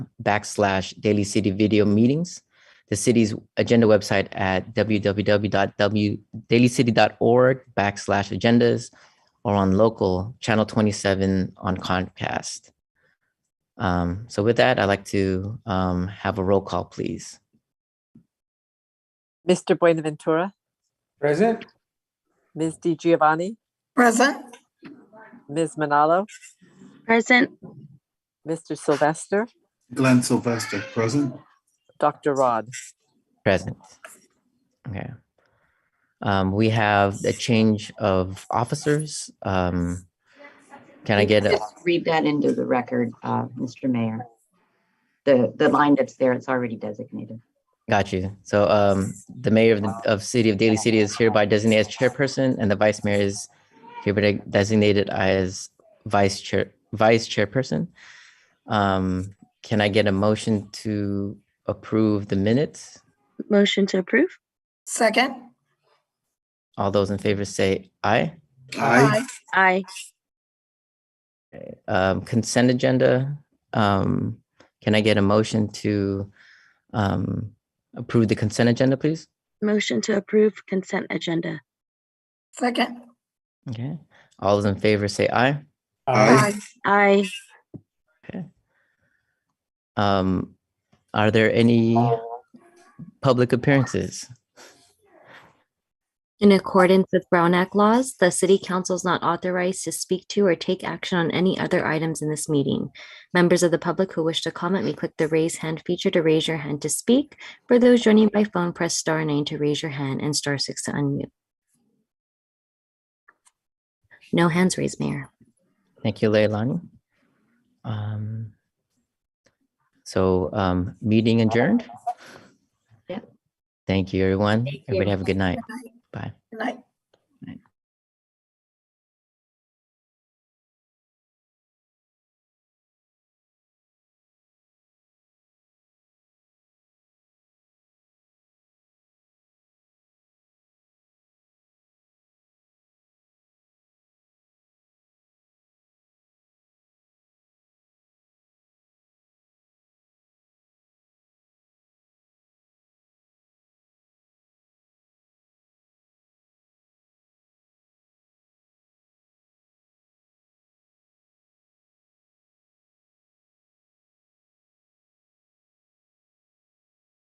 backslash daily city video meetings, the city's agenda website at www.dailycity.org backslash agendas, or on local channel 27 on Comcast. Um, so with that, I'd like to um, have a roll call, please. Mr. Buenaventura, Present? Ms. Di Giovanni, Present. Ms. Manalo, Present, Mr. Sylvester, Glenn Sylvester, present. Dr. Rod. Present. Okay. Um, we have a change of officers. Um, can I get, a- Just read that into the record, uh, Mr. Mayor. The, the line that's there, it's already designated. got you. So, um, the mayor of, the of city of Daly City is hereby designated as chairperson and the vice mayor is hereby designated as vice chair, vice chairperson. Um, can I get a motion to approve the minutes? motion to approve? Second. All those in favor say aye. Aye. Aye. um, consent agenda. Um, can I get a motion to um, approve the consent agenda, please? Motion to approve consent agenda. Second. Okay. All those in favor say aye. Aye. Aye. Um, are there any Uh, public appearances? In accordance with Brown Act laws, the city council is not authorized to speak to or take action on any other items in this meeting. Members of the public who wish to comment may click the raise hand feature to raise your hand to speak. For those joining by phone, press star nine to raise your hand and star six to unmute. No hands raised, Mayor. Thank you, Leilani. Um, so um, meeting adjourned. Yeah. Thank you, everyone. Thank you. Everybody have a good night. Good night. Bye. Good night.